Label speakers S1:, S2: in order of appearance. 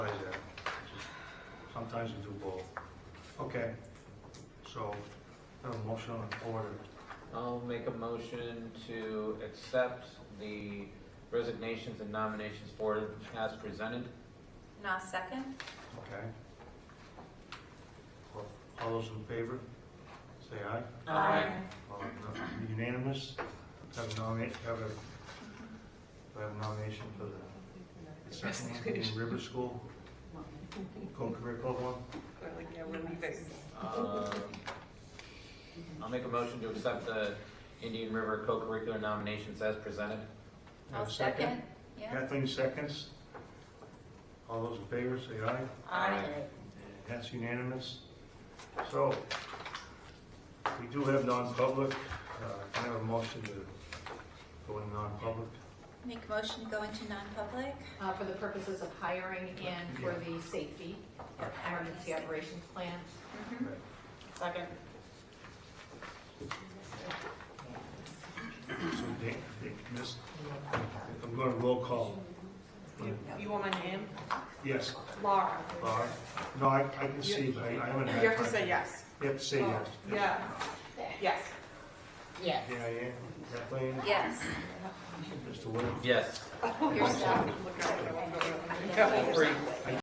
S1: sometimes we do both. Okay, so, have a motion on the floor
S2: I'll make a motion to accept the resignations and nominations for as presented.
S3: And I'll second.
S1: okay? All- All those in favor, say aye. All Unanimous, have a nomination, have a, do I have a nomination for the second one, in River School, co-curricular one?
S4: Yeah, we're leaving.
S2: Um, I'll make a motion to accept the Indian River co-curricular nominations as presented.
S3: I'll second. Yeah.
S1: Kathleen seconds. All those in favor, say aye.
S3: Aye.
S1: That's unanimous. So, we do have non-public. Uh, Can I have a motion to go in non-public?
S3: Make motion to go into non-public.
S5: Uh, for the purposes of hiring and for the safety, emergency operations plan.
S3: Mhm.
S5: Second.
S1: So, Dan, Dan, Miss, I'm going to roll call.
S4: You you want my name?
S1: Yes,
S4: Laura.
S1: Laura? No, I I can see, but I I haven't had
S4: You
S1: time.
S4: have to say yes.
S1: You have to say yes.
S4: Yeah, yes.
S5: Yes.
S1: Yeah, yeah. Kathleen,
S3: Yes.
S1: Mr. Wood?
S2: Yes.
S5: Yourself.
S4: Look out, I won't go over there.
S5: Yeah.
S1: I